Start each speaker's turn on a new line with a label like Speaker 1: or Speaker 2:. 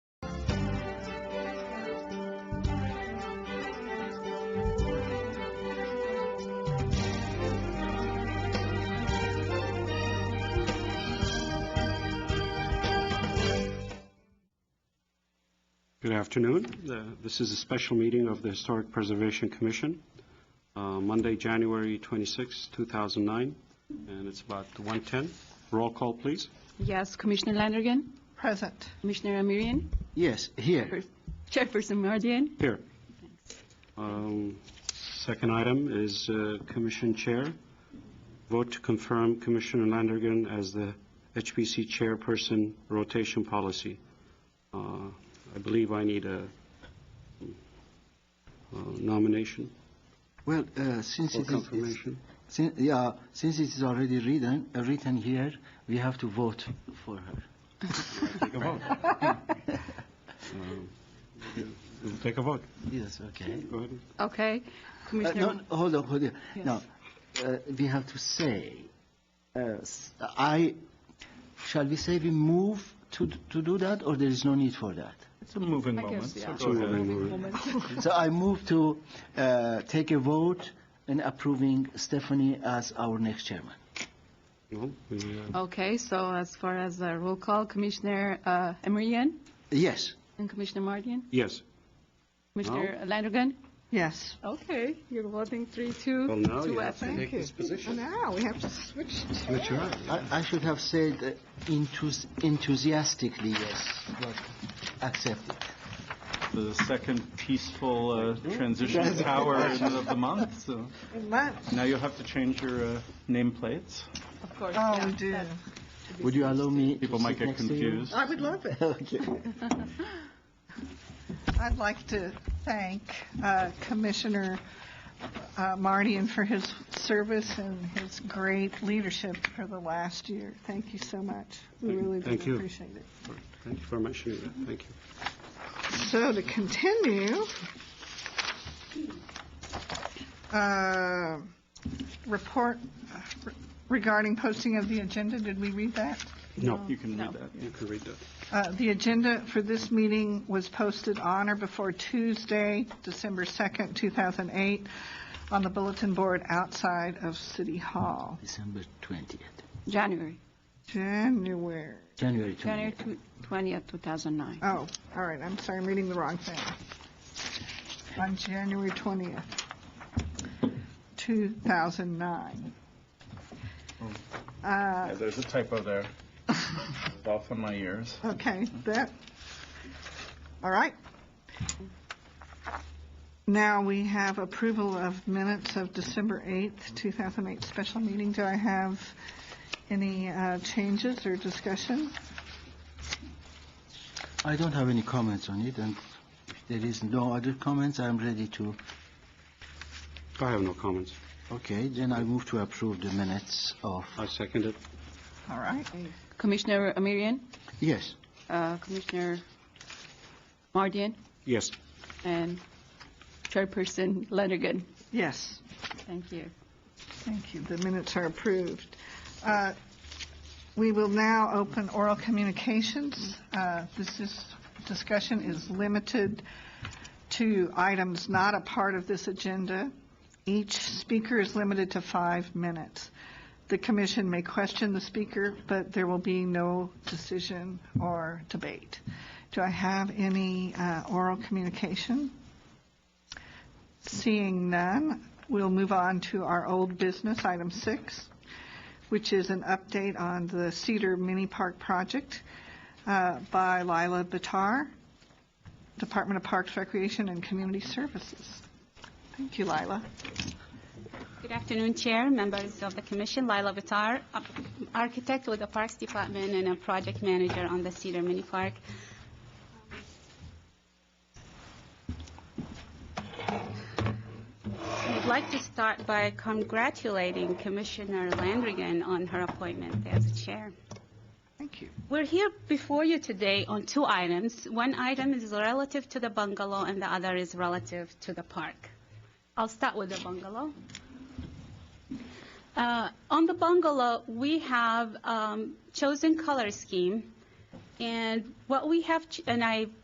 Speaker 1: Good afternoon. The- This is a special meeting of the Historic Preservation Commission, uh, Monday, January 26, 2009, and it's about 1:10. Roll call, please.
Speaker 2: Yes, Commissioner Landrigan,
Speaker 3: Present.
Speaker 2: Commissioner Emerian,
Speaker 4: Yes, here.
Speaker 2: First- Chairperson Mardian,
Speaker 1: Here. Um, Second item is uh, Commission Chair. Vote to confirm Commissioner Landergan as the HPC Chairperson Rotation Policy. Uh, I believe I need a uh, nomination
Speaker 4: Well, uh, since
Speaker 1: or
Speaker 4: it is, it's-
Speaker 1: confirmation.
Speaker 4: sin- yeah, since it is already written, uh, written here, we have to vote for her.
Speaker 1: We'll Take a vote.
Speaker 4: Yes, okay.
Speaker 1: Go ahead.
Speaker 2: okay?
Speaker 4: Uh,
Speaker 2: Commissioner,
Speaker 4: No, no, hold on, hold on.
Speaker 2: Yes.
Speaker 4: No, uh, we have to say, uh, s- I, shall we say we move to, to do that, or there is no need for that?
Speaker 5: It's a moving
Speaker 2: I
Speaker 5: moment.
Speaker 2: guess, yeah.
Speaker 5: so go ahead.
Speaker 4: So I move to uh, take a vote in approving Stephanie as our next chairman.
Speaker 1: Well, we, uh,
Speaker 2: okay, so as far as uh, roll call, Commissioner uh, Emerian
Speaker 4: Yes,
Speaker 2: and Commissioner Mardian,
Speaker 1: Yes.
Speaker 2: Commissioner Landrigan,
Speaker 3: Yes.
Speaker 2: okay, you're voting three, two,
Speaker 1: Well, now you
Speaker 2: two
Speaker 1: have to
Speaker 2: absent.
Speaker 1: take this
Speaker 3: And
Speaker 1: position.
Speaker 3: now we have to switch.
Speaker 1: Which you are.
Speaker 4: I I should have said uh, enthus- enthusiastically, yes, but accepted.
Speaker 5: The second peaceful uh, transition of power of the month, so now you'll have to change your uh, nameplates.
Speaker 2: Of course,
Speaker 3: Oh,
Speaker 2: yeah,
Speaker 3: we do.
Speaker 2: that's-
Speaker 4: Would you allow me? to
Speaker 5: People might
Speaker 4: sit
Speaker 5: get
Speaker 4: next to you?
Speaker 5: confused.
Speaker 3: I would love it.
Speaker 4: Okay.
Speaker 3: I'd like to thank uh, Commissioner uh, Mardian for his service and his great leadership for the last year. Thank you so much. We really do
Speaker 1: Thank you.
Speaker 3: appreciate it.
Speaker 1: Thank you for mentioning that. Thank you.
Speaker 3: So to continue, uh, report regarding posting of the agenda, did we read that?
Speaker 1: No,
Speaker 5: You can
Speaker 2: No.
Speaker 5: read that.
Speaker 1: you can read that.
Speaker 3: Uh, The agenda for this meeting was posted on or before Tuesday, December 2nd, 2008, on the bulletin board outside of City Hall.
Speaker 4: December 20th,
Speaker 2: January,
Speaker 3: January,
Speaker 4: January
Speaker 2: January
Speaker 4: 20th.
Speaker 2: tw- 20th, 2009.
Speaker 3: oh, all right, I'm sorry, I'm reading the wrong thing. On January 20th, 2009. Uh,
Speaker 5: Yeah, there's a typo there. It's Off on my ears.
Speaker 3: Okay, that, all right. Now we have approval of minutes of December 8th, 2008 special meeting. Do I have any uh, changes or discussion?
Speaker 4: I don't have any comments on it, and if there is no other comments, I'm ready to,
Speaker 1: I have no comments.
Speaker 4: okay, then I move to approve the minutes of,
Speaker 1: I second it.
Speaker 3: All right,
Speaker 2: Commissioner Emerian,
Speaker 4: yes,
Speaker 2: uh, Commissioner Mardian,
Speaker 1: Yes.
Speaker 2: and Chairperson Landrigan,
Speaker 3: yes,
Speaker 2: thank you.
Speaker 3: thank you, the minutes are approved. Uh, We will now open oral communications. Uh, This is, discussion is limited to items not a part of this agenda. Each speaker is limited to five minutes. The commission may question the speaker, but there will be no decision or debate. Do I have any uh, oral communication? Seeing none, we'll move on to our old business, item six, which is an update on the Cedar Mini Park project uh, by Lila Batar, Department of Parks, Recreation, and Community Services. Thank you, Lila.
Speaker 6: Good afternoon, Chair, members of the Commission. Lila Vitar, architect with the Parks Department and a project manager on the Cedar Mini Park. I'd like to start by congratulating Commissioner Landrigan on her appointment as Chair.
Speaker 3: Thank you.
Speaker 6: We're here before you today on two items. One item is relative to the bungalow, and the other is relative to the park. I'll start with the bungalow. Uh, On the bungalow, we have um, chosen color scheme, and what we have, ch- and I